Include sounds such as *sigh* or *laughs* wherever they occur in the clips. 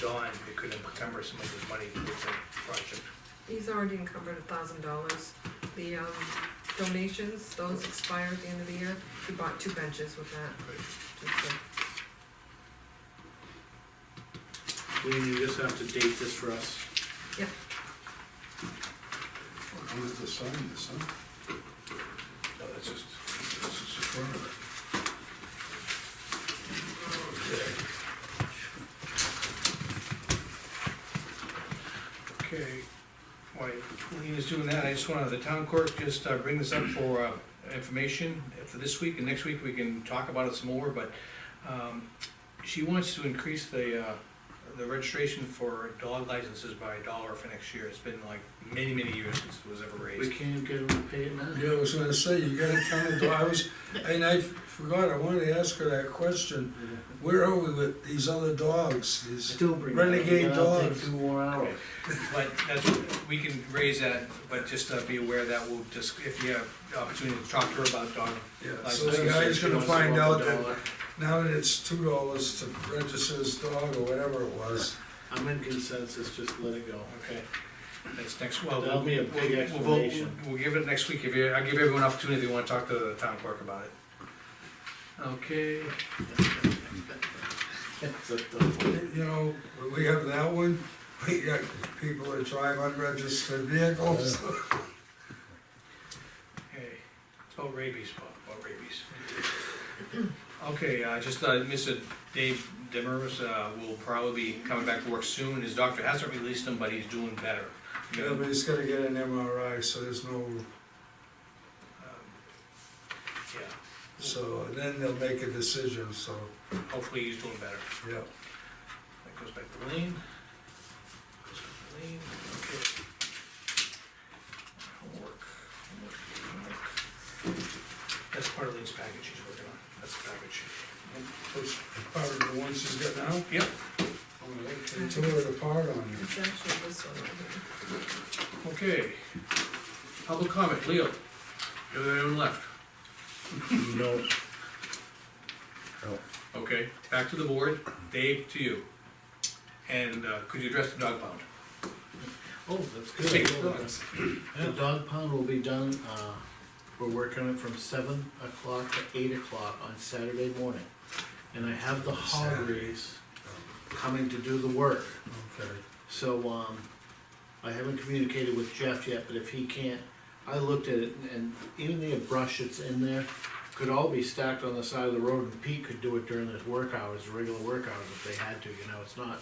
gone, it could encumber some of his money to get the project. He's already encumbered a thousand dollars. The um, donations, those expire at the end of the year. He bought two benches with that. just to- Lean, you just have to date this for us. I'm gonna have to sign this, huh? No, Oh, that's just, This is the front of it. okay. While Lean is doing that, I just wanna, the town clerk, just uh, bring this up for uh, information for this week, and next week we can talk about it some more, but um, she wants to increase the, uh, the registration for dog licenses by a dollar for next year. It's been like many, many years since it was ever We raised. can't get them to pay it now. Yeah, I was gonna say, you gotta count it, I was, and I forgot, I wanted to ask her that question. Where are we with these other dogs? These, Still bring it up. Renegade You gotta take dogs. Two more hours. But that's, we can raise that, but just uh, be aware that we'll just, if you have the opportunity to talk to her about dog yeah, so the guy's She gonna wants to find go up out a that dollar. now that it's two dollars to register his dog or whatever it was. I'm in consensus, just let *laughs* it go. Okay, that's next, well. That'll be a we'll- big we'll- explanation. We'll give it next week, if you, I'll give everyone an opportunity if you wanna talk to the town clerk about it. Okay, It's a tough one. You know, when we have that one, *laughs* we got people that drive unregistered vehicles. okay, it's about rabies, Bob, about rabies. Okay, uh, just, uh, Mr. Dave Demers, uh, will probably be coming back to work soon, his doctor hasn't released him, but he's doing better. *laughs* Yeah, but he's gonna get an MRI, so there's no, Um, Yeah, so then they'll make a decision, so, hopefully he's doing better. yeah. That goes back to Lean. Goes back to Lean, okay. Homework, homework, homework. That's part of Lean's package he's working on, that's the package. Those Part of the ones she's got now, Yep, I'm gonna take two of the part on you. It's actually this one right okay. Public comment, Leo. You're the only one left. No. Okay, back to the board, Dave to you. And uh, could you address the dog pound? Oh, that's Speak. good. Well, that's- The dog pound will be done, uh, we're working on it from seven o'clock to eight o'clock on Saturday morning. And I have the Hoggies coming to do the work. Okay. So, um, I haven't communicated with Jeff yet, but if he can't, I looked at it and even the brush that's in there could all be stacked on the side of the road and Pete could do it during his work hours, regular work hours if they had to, you know, it's not,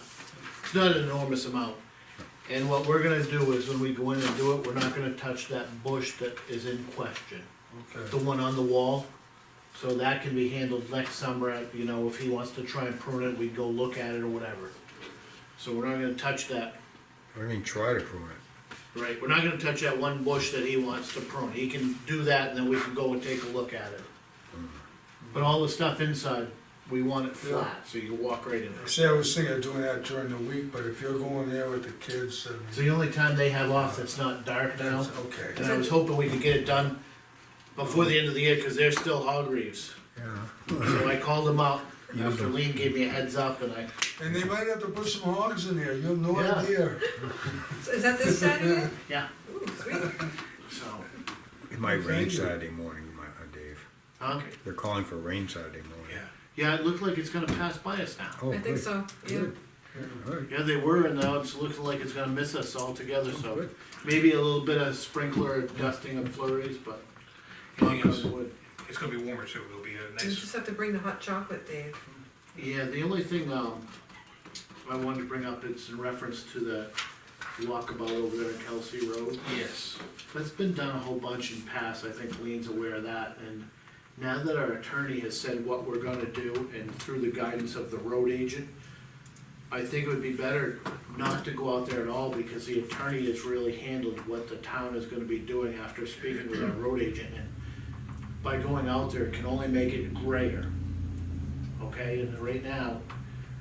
it's not an enormous amount. And what we're gonna do is when we go in and do it, we're not gonna touch that bush that is in question Okay. the one on the wall. So that can be handled next summer, you know, if he wants to try and prune it, we'd go look at it or whatever. So we're not gonna touch that, I didn't even try to prune it. right, we're not gonna touch that one bush that he wants to prune, he can do that and then we can go and take a look at it. Mm-hmm. But all the stuff inside, we want it flat, so you can walk right in there. See, I was thinking of doing that during the week, but if you're going there with the kids, then. It's the only time they have off that's not dark now, That's okay. and I was hoping we could get it done before the end of the year, cause they're still hog reeves. Yeah. So I called him out Yeah. after Lean gave me a heads up and I, And they might have to put some hogs in there, you have no Yeah. idea. there. Is that this Saturday? yeah, Ooh, sweet. so, It might rain Thank you. Saturday morning, my, uh, Dave. huh? They're calling for rain Saturday morning. Yeah, it looked like it's gonna pass by us now. Oh, I think good. so, yeah. Good. All right. Yeah, they were and now it's looking like it's gonna miss us altogether, so Good. maybe a little bit of sprinkler dusting and flurries, but. Anything knock on else? wood. It's gonna be warmer too, it'll be a You nice, just have to bring the hot chocolate, Dave. Yeah, the only thing, um, I wanted to bring up, it's in reference to the walkabout over there on Kelsey Road. yes, That's been done a whole bunch in past, I think Lean's aware of that, and now that our attorney has said what we're gonna do, and through the guidance of the road agent, I think it would be better not to go out there at all, because the attorney has really handled what the town is gonna be doing after speaking with our road agent, and by going out there, it can only make it grayer. Okay, and right now,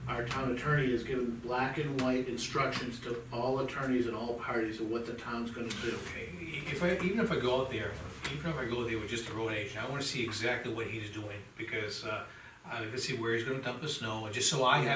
our town attorney has given black and white instructions to all attorneys and all parties of what the town's gonna do. Okay, if I, even if I go out there, even if I go there with just a road agent, I wanna see exactly what he's doing, because, uh, I can see where he's gonna dump the snow, and just so I have